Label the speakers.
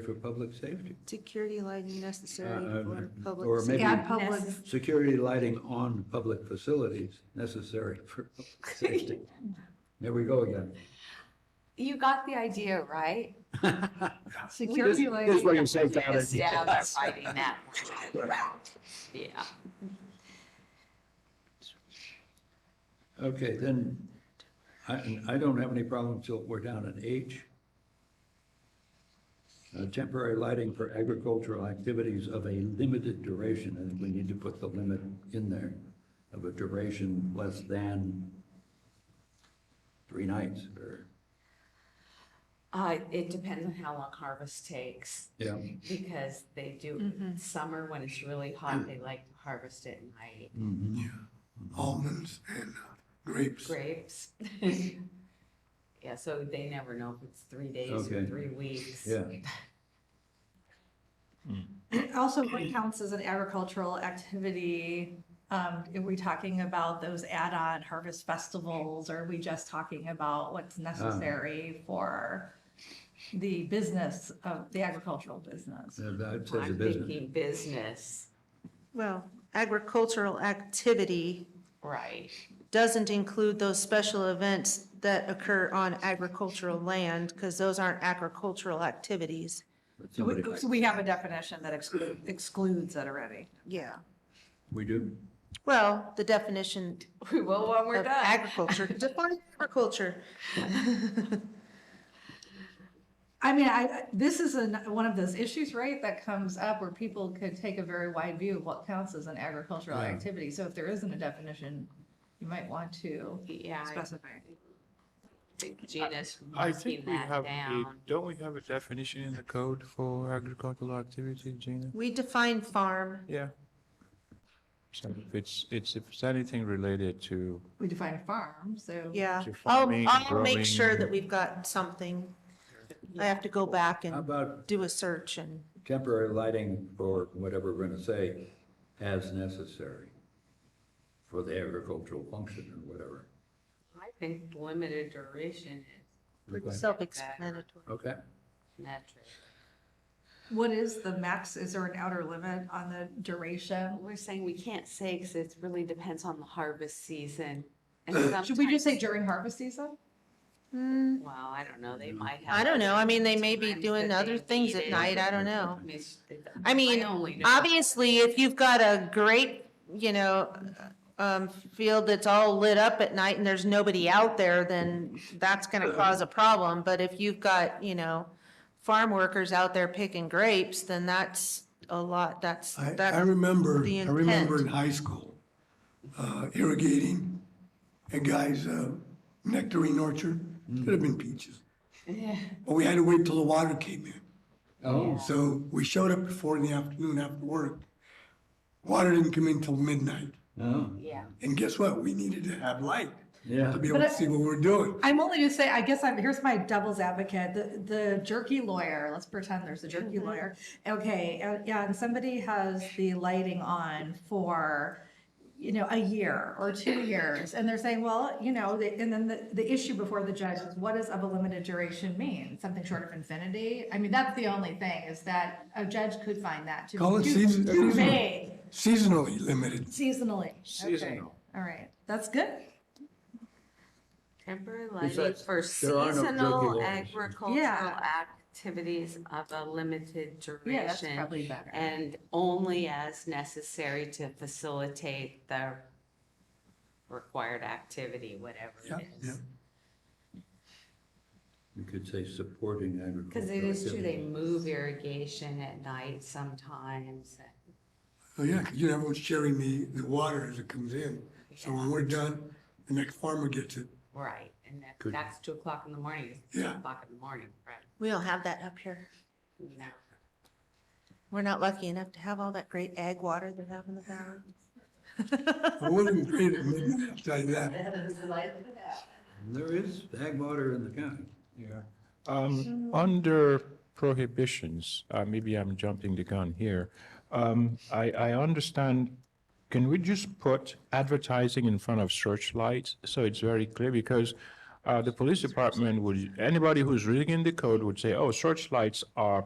Speaker 1: for public safety.
Speaker 2: Security lighting necessary
Speaker 1: Uh, uh,
Speaker 2: for
Speaker 1: or
Speaker 2: public.
Speaker 1: maybe-
Speaker 2: safety.
Speaker 1: Yeah,
Speaker 2: public.
Speaker 3: necess-
Speaker 1: Security lighting on public facilities necessary for public safety. There we go again.
Speaker 3: You got the idea, right?
Speaker 1: This-
Speaker 2: Security
Speaker 1: This is
Speaker 2: lighting,
Speaker 1: where you save that
Speaker 3: Yes, yeah, they're
Speaker 1: idea.
Speaker 3: fighting that. one. Yeah.
Speaker 1: Okay, then, I, and I don't have any problem till we're down at H. Uh, Temporary lighting for agricultural activities of a limited duration. I think we need to put the limit in there of a duration less than three nights or,
Speaker 3: Uh, it depends on how long harvest takes,
Speaker 1: yeah.
Speaker 3: because they do, summer when it's really hot,
Speaker 1: Mm.
Speaker 3: they like to harvest at night.
Speaker 1: Mhm.
Speaker 4: almonds and grapes.
Speaker 3: Grapes. Yeah, so they never know if it's three days or
Speaker 1: Okay.
Speaker 3: three weeks.
Speaker 1: Yeah.
Speaker 5: Also, what counts as an agricultural activity? Um, Are we talking about those add-on harvest festivals? Or are we just talking about what's necessary for the business of, the agricultural business?
Speaker 1: Yeah, That says a
Speaker 3: I'm
Speaker 1: business.
Speaker 3: thinking business,
Speaker 2: well, agricultural activity
Speaker 3: right,
Speaker 2: doesn't include those special events that occur on agricultural land because those aren't agricultural activities.
Speaker 1: But
Speaker 5: So
Speaker 1: somebody-
Speaker 5: we- so we have a definition that exclu- excludes that already.
Speaker 2: Yeah.
Speaker 1: We do?
Speaker 2: Well, the definition
Speaker 3: we will when we're
Speaker 2: of
Speaker 3: done.
Speaker 2: agriculture, define agriculture.
Speaker 5: I mean, I, I- this is an, one of those issues, right, that comes up where people could take a very wide view of what counts as an agricultural
Speaker 1: Yeah.
Speaker 5: activity. So if there isn't a definition, you might want to
Speaker 3: Yeah, I
Speaker 5: specify.
Speaker 3: think Gina's
Speaker 6: I
Speaker 3: marking
Speaker 6: think we
Speaker 3: that
Speaker 6: have a,
Speaker 3: down.
Speaker 6: don't we have a definition in the code for agricultural activity, Gina?
Speaker 2: We define farm.
Speaker 6: Yeah. So if it's, it's, if it's anything related to,
Speaker 5: We define farm, so.
Speaker 2: Yeah,
Speaker 6: To
Speaker 2: I'll,
Speaker 6: farming,
Speaker 2: I'll make sure
Speaker 6: growing.
Speaker 2: that we've got something. I have to go back
Speaker 1: How
Speaker 2: and
Speaker 1: about
Speaker 2: do a search and,
Speaker 1: temporary lighting for whatever we're gonna say, as necessary for the agricultural function or whatever.
Speaker 3: I think limited duration is
Speaker 2: pretty
Speaker 1: Okay.
Speaker 2: self-explanatory.
Speaker 1: Okay,
Speaker 3: metric.
Speaker 5: What is the max, is there an outer limit on the duration?
Speaker 3: We're saying we can't say because it really depends on the harvest season. and
Speaker 5: Should we just say
Speaker 3: sometimes-
Speaker 5: during harvest season?
Speaker 2: Hmm,
Speaker 3: Well, I don't know,
Speaker 5: Mm.
Speaker 3: they might have.
Speaker 2: I don't know, I mean, they may be
Speaker 3: times
Speaker 2: doing
Speaker 3: that
Speaker 2: other
Speaker 3: they
Speaker 2: things
Speaker 3: need
Speaker 2: at
Speaker 3: it.
Speaker 2: night, I don't know.
Speaker 3: I mean, it's-
Speaker 2: I mean,
Speaker 3: only know-
Speaker 2: Obviously, if you've got a great, you know, um, field that's all lit up at night and there's nobody out there, then that's gonna
Speaker 4: Uh-huh.
Speaker 2: cause a problem. But if you've got, you know, farm workers out there picking grapes, then that's a lot, that's,
Speaker 4: I, I
Speaker 2: that's,
Speaker 4: remember,
Speaker 2: the
Speaker 4: I remember
Speaker 2: intent.
Speaker 4: in high school, uh, irrigating a guy's, uh, nectarine orchard. Could have been peaches. But we had to wait till the water came in.
Speaker 1: oh,
Speaker 4: So we showed up before in the afternoon after work. Water didn't come in till midnight.
Speaker 1: oh,
Speaker 3: Yeah,
Speaker 4: And guess what? We needed to have light
Speaker 1: yeah.
Speaker 4: to be able to see what we're doing.
Speaker 5: I'm only to say, I guess I'm, here's my devil's advocate, the, the jerky lawyer, let's pretend there's a jerky lawyer. Okay, uh, yeah, and somebody has the lighting on for, you know, a year or two years, and they're saying, well, you know, they- and then the, the issue before the judge is, what does of a limited duration mean? Something short of infinity? I mean, that's the only thing, is that a judge could find that to
Speaker 4: Call it
Speaker 5: be too-
Speaker 4: season-
Speaker 5: too vague.
Speaker 4: Seasonally limited.
Speaker 5: Seasonally, okay,
Speaker 6: Seasonal.
Speaker 5: all right, that's good.
Speaker 3: temporary lighting
Speaker 1: Besides,
Speaker 3: for
Speaker 1: there are no jerky
Speaker 3: seasonal
Speaker 1: laws.
Speaker 3: agricultural activities of a limited
Speaker 5: Yeah, that's
Speaker 3: duration.
Speaker 5: probably better.
Speaker 3: And only as necessary to facilitate the required activity, whatever
Speaker 4: Yeah,
Speaker 3: it is.
Speaker 1: You could say supporting agricultural.
Speaker 3: Because it is true, they
Speaker 1: activity.
Speaker 3: move irrigation at night sometimes.
Speaker 4: Oh, yeah, 'cause you know, everyone's sharing the, the water as it comes in. So when we're done, the next farmer gets it.
Speaker 3: Right, and that-
Speaker 1: Good.
Speaker 3: that's two o'clock in the morning, it's two
Speaker 4: Yeah.
Speaker 3: o'clock in the morning, right?
Speaker 2: we don't have that up here.
Speaker 3: No.
Speaker 2: We're not lucky enough to have all that great ag water they have in the valley.
Speaker 4: I wasn't great at midnight, I'll tell you that.
Speaker 1: There is ag water in the county.
Speaker 6: Yeah. Um, under prohibitions, uh, maybe I'm jumping the gun here. Um, I, I understand, can we just put advertising in front of searchlights? So it's very clear because, uh, the police department would, anybody who's reading the code would say, oh, searchlights are